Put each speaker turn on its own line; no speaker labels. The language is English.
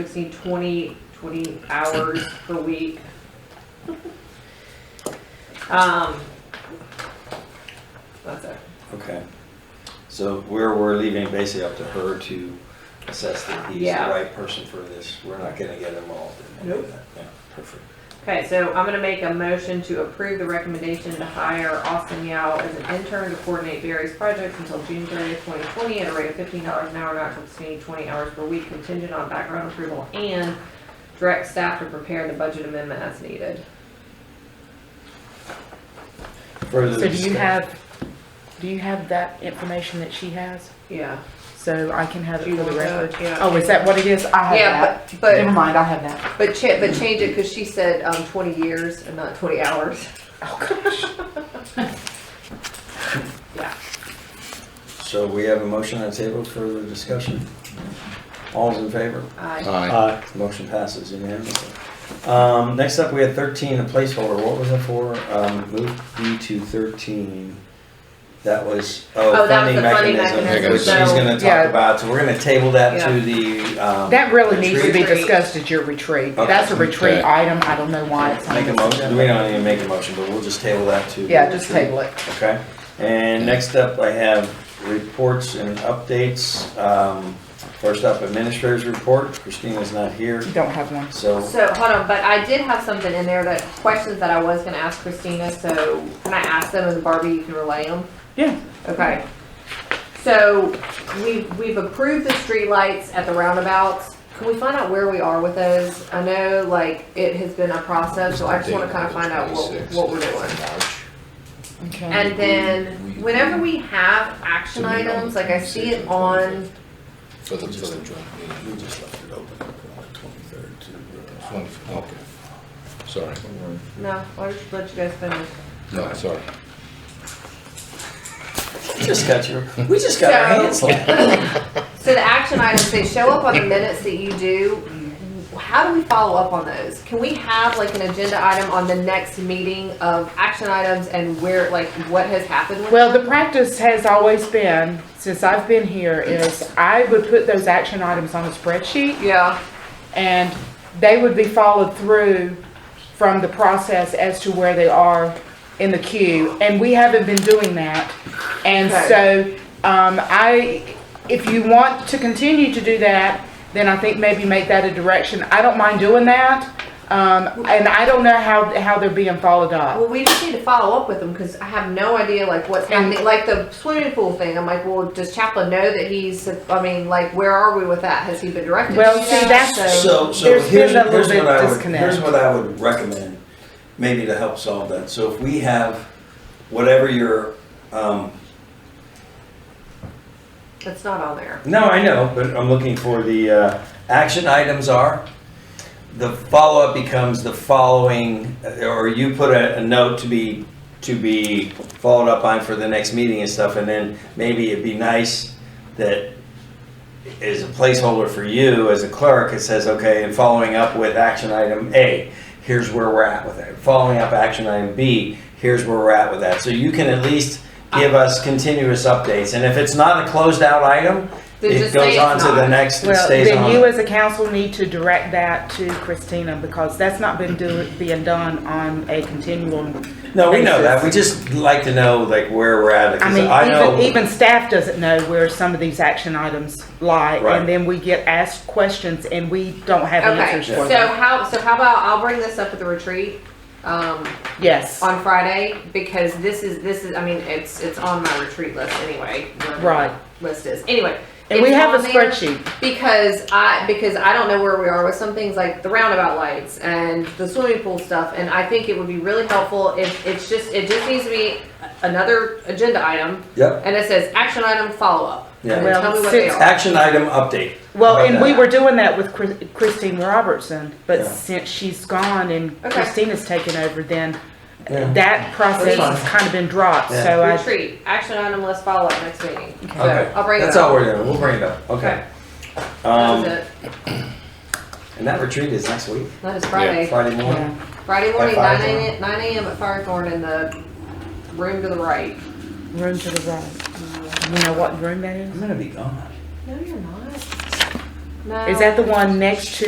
exceed 20, 20 hours per week. Um, that's it.
Okay. So we're, we're leaving basically up to her to assess that he's the
Yeah.
right person for this. We're not gonna get involved in any of
Nope.
that. Yeah, perfect.
Okay, so I'm gonna make a motion to approve the recommendation to hire Austin Yao as an intern to coordinate various projects until June thirtieth, twenty twenty, at a rate of fifteen dollars an hour, not to exceed twenty hours per week, contingent on background approval, and direct staff to prepare the budget amendment as needed.
Further
So do you
discuss-
have, do you have that information that she has?
Yeah.
So I can have it
Do you
for the
want
record?
that? Yeah.
Oh, is that what it is? I
Yeah,
have
but-
that.
but-
Never mind, I have that.
But cha- but change it, cause she said, um, twenty years and not twenty hours. Oh,
So we have a motion on the table, further discussion? All's in favor?
Aye.
Uh,
Aye.
Motion passes unanimously. Um, next up, we had thirteen, a placeholder. What was it for? Um, move B to thirteen. That was, oh,
Oh, that was
funding
the funding
mechanism,
mechanism,
which she's
so-
gonna
Yeah.
talk about. So we're gonna table that
Yeah.
to the, um.
That really needs to be
Retreat.
discussed at your retreat.
Okay.
That's a retreat
Okay.
item. I don't know why it's on
Make a
this
motion,
agenda.
we don't even make a motion, but we'll just table that to.
Yeah, just table it.
Okay, and next up, I have reports and updates. Um, First up, administrators report, Christina's not here,
You don't have one.
so.
So, hold on, but I did have something in there that, questions that I was gonna ask Christina, so can I ask them and Barbie, you can relay them?
Yeah.
Okay. So we, we've approved the streetlights at the roundabouts. Can we find out where we are with those? I know like it has been a process, so I just wanna kinda find out what, what we're doing.
Okay.
And then whenever we have action items, like I see it on,
For the, for the joint meeting. We just left it open on the twenty-third to. uh, Okay. Sorry.
no, I'll just let you guys finish.
No, sorry.
We just got your, we just got our hands
So-
slapped.
So the action items, they show up on the minutes that you do. How do we follow up on those? Can we have like an agenda item on the next meeting of action items and where, like, what has happened with?
Well, the practice has always been, since I've been here, is I would put those action items on a spreadsheet
Yeah,
and they would be followed through from the process as to where they are in the queue. And we haven't been doing that. And so, um, I, if you want to continue to do that, then I think maybe make that a direction. I don't mind doing that. Um, and I don't know how, how they're being followed up.
well, we just need to follow up with them because I have no idea like what's happening, like the swimming pool thing. I'm like, well, does Chaplin know that he's, I mean, like, where are we with that? Has he been directed?
Well,
to
see,
that?
that's-
So, so
There's been
here's,
a little
here's
bit
what I would,
disconnect.
here's what I would recommend, maybe to help solve that. So if we have whatever your, um,
It's not on there.
no, I know, but I'm looking for the, uh, action items are, the follow-up becomes the following, or you put a, a note to be, to be followed up on for the next meeting and stuff, and then maybe it'd be nice that is a placeholder for you as a clerk, it says, okay, and following up with action item A, here's where we're at with it. Following up action item B, here's where we're at with that. So you can at least give
Ah.
us continuous updates, and if it's not a closed out item,
Then
it
just say
goes
it's
on to the
not.
next, it
Well,
stays
then you
on.
as a council need to direct that to Christina because that's not been do, being done on a continual
No, we know that,
basis.
we just like to know like where we're at,
I
because
mean,
I know.
even, even staff doesn't know where some of these action items lie,
Right.
and then we get asked questions and we don't have
Okay,
answers
so
for them.
how, so how about, I'll bring this up at the retreat. Um,
Yes,
on Friday because this is this is I mean it's it's on my retreat list anyway. whatever
Right.
my List is anyway.
and we
it's
have a
on there
spreadsheet.
because I because I don't know where we are with some things like the roundabout lights and the swimming pool stuff and I think it would be really helpful if it's just it just needs to be another agenda item
Yep,
and it says action item follow up.
Yeah.
And then tell me what they
Well,
are.
action item update.
Well,
How about
and we
that?
were doing that with Chris- Christine Robertson, but
Yeah.
since she's gone and
Okay.
Christina's taken over, then
Yeah.
that process
That's
has kind of been dropped,
Yeah.
so I,
Retreat, action item, let's follow up next meeting. So
Okay,
I'll bring it
that's
up.
all we're doing, we'll bring it up, okay.
That
Um,
was it.
and that retreat is next week,
That is Friday.
Friday morning.
yeah.
Friday morning,
At
9
5
a.m. 9 a.m. at Firethorn in the room to the right.
room to the right. You know what room that is?
I'm gonna be gone.
No, you're not. No.
Is that the one next to